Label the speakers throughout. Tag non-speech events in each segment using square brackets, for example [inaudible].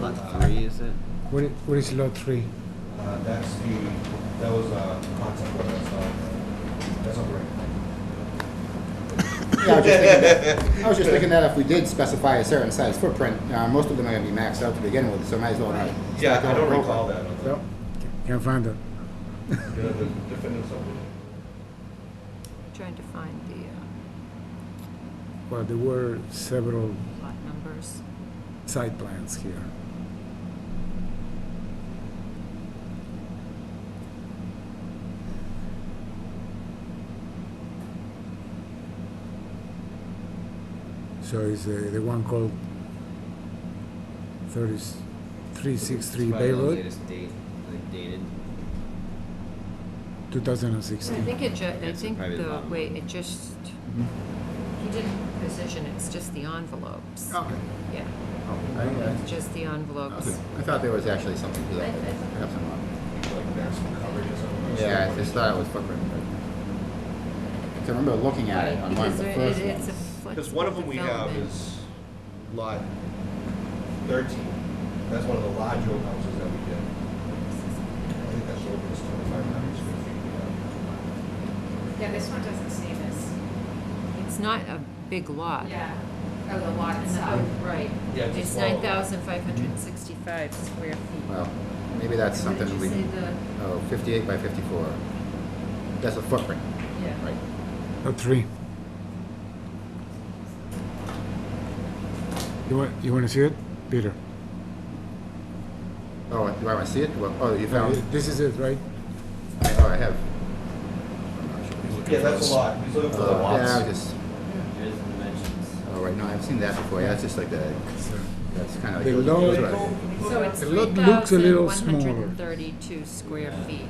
Speaker 1: Lot three, is it?
Speaker 2: What i- what is lot three?
Speaker 3: Uh, that's the, that was a concept, but that's not, that's not right.
Speaker 4: Yeah, I was just thinking that, I was just thinking that if we did specify a certain size footprint, uh, most of them are gonna be maxed out to begin with, so might as well not.
Speaker 3: Yeah, I don't recall that.
Speaker 4: So,
Speaker 2: Can't find it.
Speaker 3: The the defendants of it.
Speaker 5: Trying to find the
Speaker 2: Well, there were several
Speaker 5: uh, lot numbers.
Speaker 2: site plans here. So is the, the one called thirty, three six three
Speaker 1: It's probably
Speaker 2: Bay
Speaker 1: the
Speaker 2: Road,
Speaker 1: Latest date, like dated.
Speaker 2: two thousand and
Speaker 5: I
Speaker 2: sixteen.
Speaker 5: think it ju, I
Speaker 1: It's a
Speaker 5: think
Speaker 1: private
Speaker 5: the
Speaker 1: lot.
Speaker 5: way, it just,
Speaker 3: Mm-hmm.
Speaker 5: he didn't position, it's just the envelopes.
Speaker 4: Okay.
Speaker 5: Yeah,
Speaker 4: Oh, I didn't-
Speaker 5: it's just the
Speaker 4: I
Speaker 5: envelopes.
Speaker 4: I thought there was actually something to that. but perhaps I'm wrong.
Speaker 3: Like, there's some coverage or something.
Speaker 4: Yeah, I just thought it was footprint. but- 'cause I remember looking at it on one of
Speaker 5: Because
Speaker 4: the
Speaker 5: there-
Speaker 4: first
Speaker 5: it- it's a
Speaker 4: ones.
Speaker 3: Because one of them we have
Speaker 5: flexible
Speaker 3: is lot thirteen. That's one of the larger old houses that we did. I think that's over this twenty-five hundred square feet. we
Speaker 6: Yeah, this one doesn't say this.
Speaker 5: development. It's not a big lot.
Speaker 6: Yeah. Oh, the lot
Speaker 5: And the-
Speaker 6: itself.
Speaker 5: oh, Right.
Speaker 3: Yeah, it's a
Speaker 5: It's
Speaker 3: small lot.
Speaker 5: nine thousand five hundred and sixty-five square feet.
Speaker 4: Well, maybe that's
Speaker 5: What did
Speaker 4: something we,
Speaker 5: you say the-
Speaker 4: oh, fifty-eight by fifty-four. That's a footprint,
Speaker 5: yeah.
Speaker 4: right?
Speaker 2: Lot Oh, three. You want, you wanna see it, Peter?
Speaker 4: Oh, do I wanna see it? Well, oh, you found,
Speaker 2: This is it, right?
Speaker 4: I- oh, I have. I'm not sure.
Speaker 3: have. Yeah, that's a lot. He's looking for the
Speaker 4: Uh, Yeah, I was
Speaker 3: lots.
Speaker 4: just,
Speaker 1: Here's the dimensions.
Speaker 4: oh, right, no, I've seen that before, yeah, it's just like the,
Speaker 2: So-
Speaker 4: that's kinda like.
Speaker 2: The
Speaker 4: those-
Speaker 2: lower-
Speaker 4: those are like-
Speaker 5: So it's
Speaker 2: The
Speaker 5: three
Speaker 2: lot looks a
Speaker 5: thousand
Speaker 2: little
Speaker 5: one hundred and
Speaker 2: smaller.
Speaker 5: thirty-two square
Speaker 1: Yeah.
Speaker 5: feet.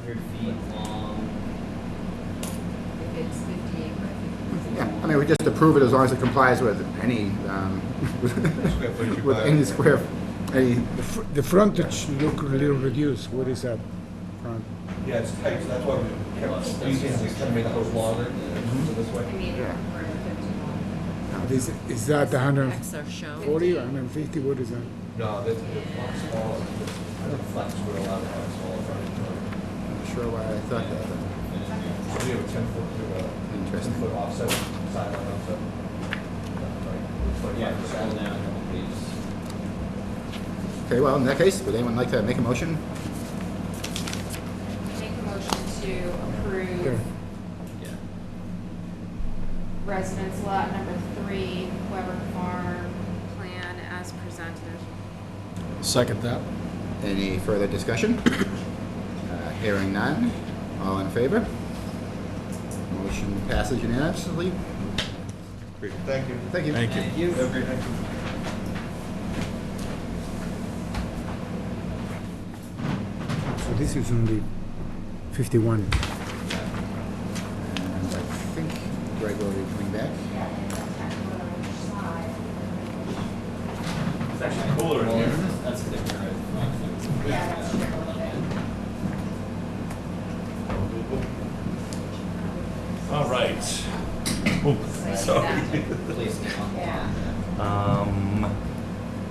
Speaker 1: Hundred feet long.
Speaker 5: If it's fifty-eight by fifty.
Speaker 4: Yeah, I mean, we just approve it as long as it complies with any, um, [laughs]
Speaker 3: Square footage
Speaker 4: with
Speaker 3: required.
Speaker 4: any square, any,
Speaker 2: The fr- The frontage look a little reduced, what is that? front?
Speaker 3: Yeah, it's tight, so that's why we kept Mm-hmm. squeezing, we kind of make those longer, so this
Speaker 6: I
Speaker 3: way.
Speaker 6: mean,
Speaker 4: Yeah.
Speaker 6: we're at fifty-one.
Speaker 4: uh,
Speaker 2: Is, is that a hundred and
Speaker 5: Setbacks are shown.
Speaker 2: forty, hundred and fifty, what is that?
Speaker 3: No, that's a lot smaller. I don't flex, we're allowed to have smaller frontage.
Speaker 4: I'm sure why I thought that, but
Speaker 3: So we have a ten foot, to, uh,
Speaker 4: interesting.
Speaker 3: Foot offset, sideline offset.
Speaker 1: Yeah, scroll down a couple pages.
Speaker 4: Okay, well, in that case, would anyone like to make a motion?
Speaker 6: Make a motion to
Speaker 2: Here.
Speaker 6: approve
Speaker 1: Yeah.
Speaker 6: residence lot number three, Weber Farm plan as presented.
Speaker 7: Second that.
Speaker 4: Any further discussion? [coughs] Uh, Hearing none, all in favor? Motion passes unanimously.
Speaker 3: Thank you.
Speaker 4: Thank you.
Speaker 7: Thank you.
Speaker 3: you. Have a great night.
Speaker 2: So this is only fifty-one.
Speaker 4: And I think Greg will be coming back.
Speaker 1: It's actually cooler in here. That's a different. right?
Speaker 6: Yeah, that's true.
Speaker 8: All right. Ooh, sorry.
Speaker 1: Please, no.
Speaker 6: Yeah.
Speaker 8: Um,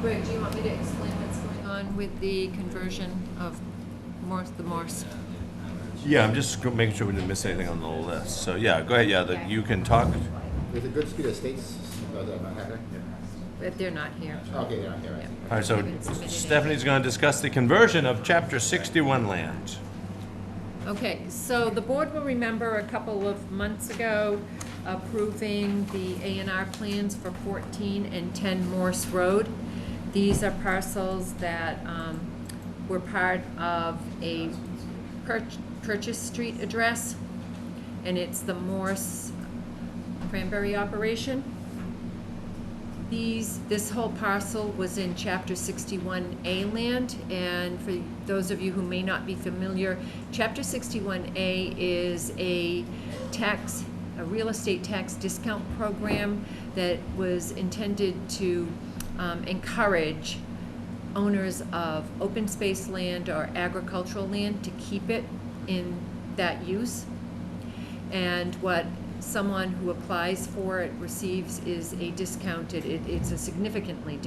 Speaker 5: Greg, do you want me to explain what's going on with the conversion of Morse, the Morse?
Speaker 8: yeah, I'm just go- making sure we didn't miss anything on the list. So yeah, go ahead. Yeah, the, you can talk.
Speaker 4: Is it good to Estates? Oh, they're not happening?
Speaker 5: But they're not here.
Speaker 4: Okay, they're not here, right.
Speaker 8: All right, so Stephanie's going to discuss the conversion of Chapter 61 land.
Speaker 5: Okay, so the board will remember a couple of months ago approving the A and R plans for fourteen and ten Morse Road. These are parcels that, um, were part of a Pur- Purchase Street address, and it's the Morse Cranberry operation. These, this whole parcel was in Chapter 61A land, and for those of you who may not be familiar, Chapter 61A is a tax, a real estate tax discount program that was intended to um, encourage owners of open space land or agricultural land to keep it in that use. And what someone who applies for it receives is a discounted, it, it's a significantly